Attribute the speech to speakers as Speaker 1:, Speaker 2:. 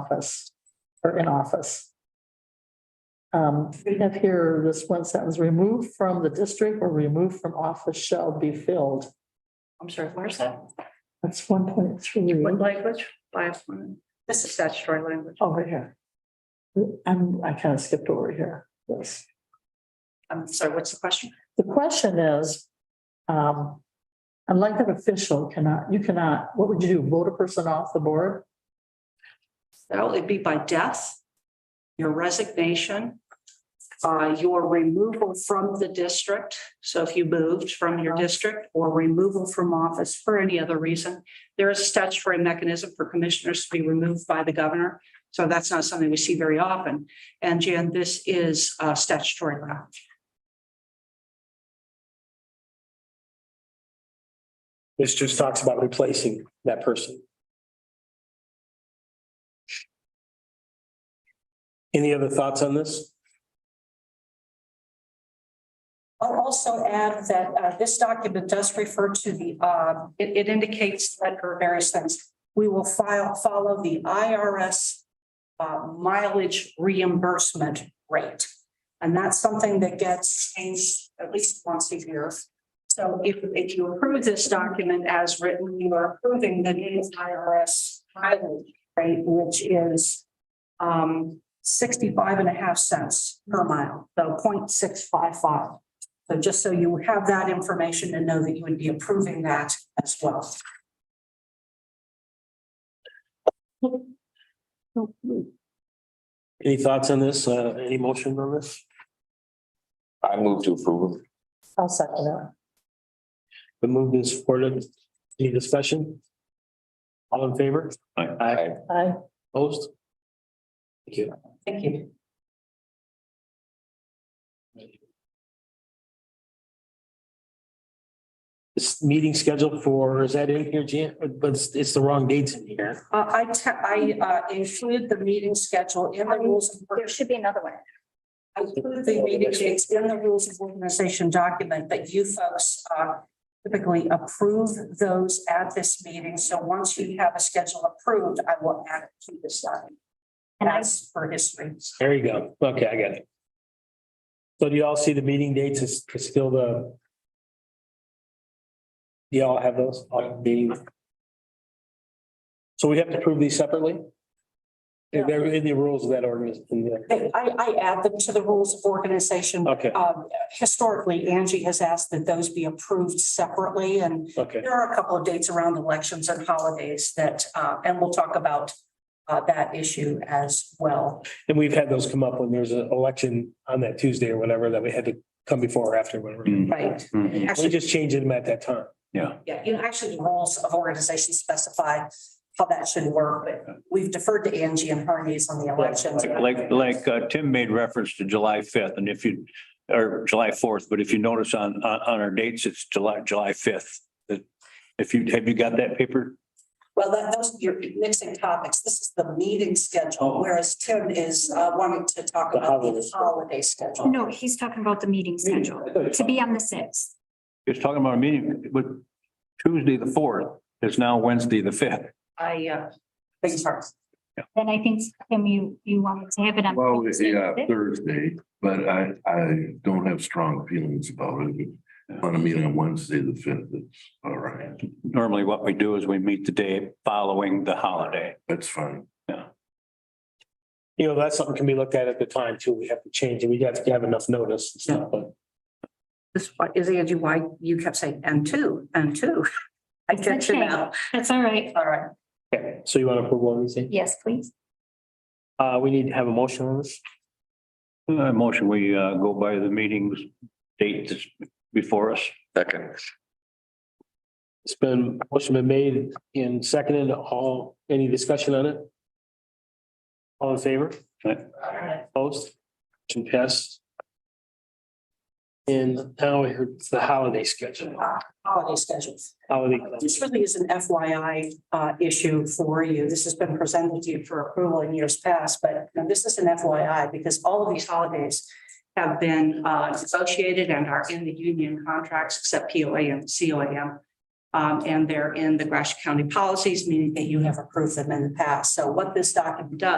Speaker 1: office or in office. Um, we have here this one sentence, removed from the district or removed from office shall be filled.
Speaker 2: I'm sorry, where's that?
Speaker 1: That's one point three
Speaker 2: What language? Bias one. This is statutory language.
Speaker 1: over Oh, here. I'm, I kind of skipped over here. Yes.
Speaker 2: I'm sorry, what's the question?
Speaker 1: The question is, um, elected official cannot, you cannot, what would you do? Vote a person off the board?
Speaker 2: So it'd be by death, your resignation, uh, your removal from the district. So if you moved from your district or removal from office for any other reason, there is a statutory mechanism for commissioners to be removed by the governor. So that's not something we see very often. And Jan, this is uh, statutory law.
Speaker 3: This just talks about replacing that person. Any other thoughts on this?
Speaker 4: I'll also add that uh, this document does refer to the, uh, it it indicates that for various things. We will file, follow the IRS uh, mileage reimbursement rate. And that's something that gets changed at least once a year.
Speaker 2: So if, if you approve this document as written, you are approving the new IRS mileage rate, which is um,
Speaker 4: 65 and a half cents per mile, so 0.655. So just so you have that information and know that you would be approving that as well.
Speaker 3: Any thoughts on this? Uh, any motion on this?
Speaker 5: I move to approve.
Speaker 1: I'll second that.
Speaker 3: The move is supported. Any discussion? All in favor? Aye.
Speaker 1: I,
Speaker 3: Opposed? Thank you.
Speaker 4: Thank you.
Speaker 3: This meeting scheduled for, is that in here, Jan? But it's, it's the wrong dates in here.
Speaker 4: Uh, I, te- I, uh, include the meeting schedule in the rules. of-
Speaker 6: There should be another one.
Speaker 4: I include the meeting dates in the rules of organization document, but you folks, uh, typically approve those at this meeting. So once you have a schedule approved, I will add it to this document.
Speaker 6: And I-
Speaker 4: As for history.
Speaker 3: There you go. Okay, I got it. So do you all see the meeting dates is is still the? Do y'all have those on meeting? So we have to prove these separately? If They're in the rules of that ordinance. in the-
Speaker 4: I, I add them to the rules of organization.
Speaker 3: Okay,
Speaker 4: Um, historically, Angie has asked that those be approved separately and
Speaker 3: okay.
Speaker 4: There are a couple of dates around elections and holidays that, uh, and we'll talk about uh, that issue as well.
Speaker 3: And we've had those come up when there's an election on that Tuesday or whatever that we had to come before or after, whatever. We
Speaker 4: Right. Actually,
Speaker 3: just changed them at that time.
Speaker 5: Yeah.
Speaker 4: yeah, you know, actually, the rules of organization specify how that should work, but we've deferred to Angie and her needs on the elections.
Speaker 7: Like, like uh, Tim made reference to July fifth and if you, or July fourth, but if you notice on, on, on our dates, it's July, July fifth. If you, have you got that paper?
Speaker 4: Well, that, those, you're mixing topics. This is the meeting schedule, whereas Tim is uh, wanting to talk
Speaker 3: The
Speaker 4: about the
Speaker 3: holidays.
Speaker 4: holiday schedule.
Speaker 6: No, he's talking about the meeting schedule to be on the sixth.
Speaker 7: It's talking about a meeting, but Tuesday, the fourth is now Wednesday, the fifth.
Speaker 4: I, uh, beg your pardon.
Speaker 6: Then I think, Tim, you, you wanted to have it on.
Speaker 5: Well,
Speaker 6: Thursday,
Speaker 5: yeah,
Speaker 6: the sixth?
Speaker 5: Thursday, but I, I don't have strong feelings about it. Want to meet on Wednesday, the fifth, it's all right,
Speaker 7: Normally what we do is we meet the day following the holiday.
Speaker 5: that's fine.
Speaker 3: You know, that's something can be looked at at the time too. We have to change it. We have to have enough notice and stuff, but.
Speaker 2: this is Angie, why you kept saying, and two, and two. I checked it out.
Speaker 6: That's all right.
Speaker 4: All right.
Speaker 3: Okay, so you want to approve one of these things?
Speaker 6: Yes, please.
Speaker 3: Uh, we need to have a motion on this.
Speaker 7: Uh, motion, we, uh, go by the meetings date that's before us.
Speaker 5: Second.
Speaker 3: It's been, motion been made and seconded. All, any discussion on it? All in favor?
Speaker 7: Aye.
Speaker 3: Opposed? Motion passed. And now it's the holiday schedule,
Speaker 4: Holiday schedules.
Speaker 3: holiday.
Speaker 4: This really is an FYI uh, issue for you. This has been presented to you for approval in years past, but now this is an FYI because all of these holidays
Speaker 2: Have been uh, negotiated and are in the union contracts except POA and COAM.
Speaker 4: Um, and they're in the Gratiot County policies, meaning that you have approved them in the past. So what this document does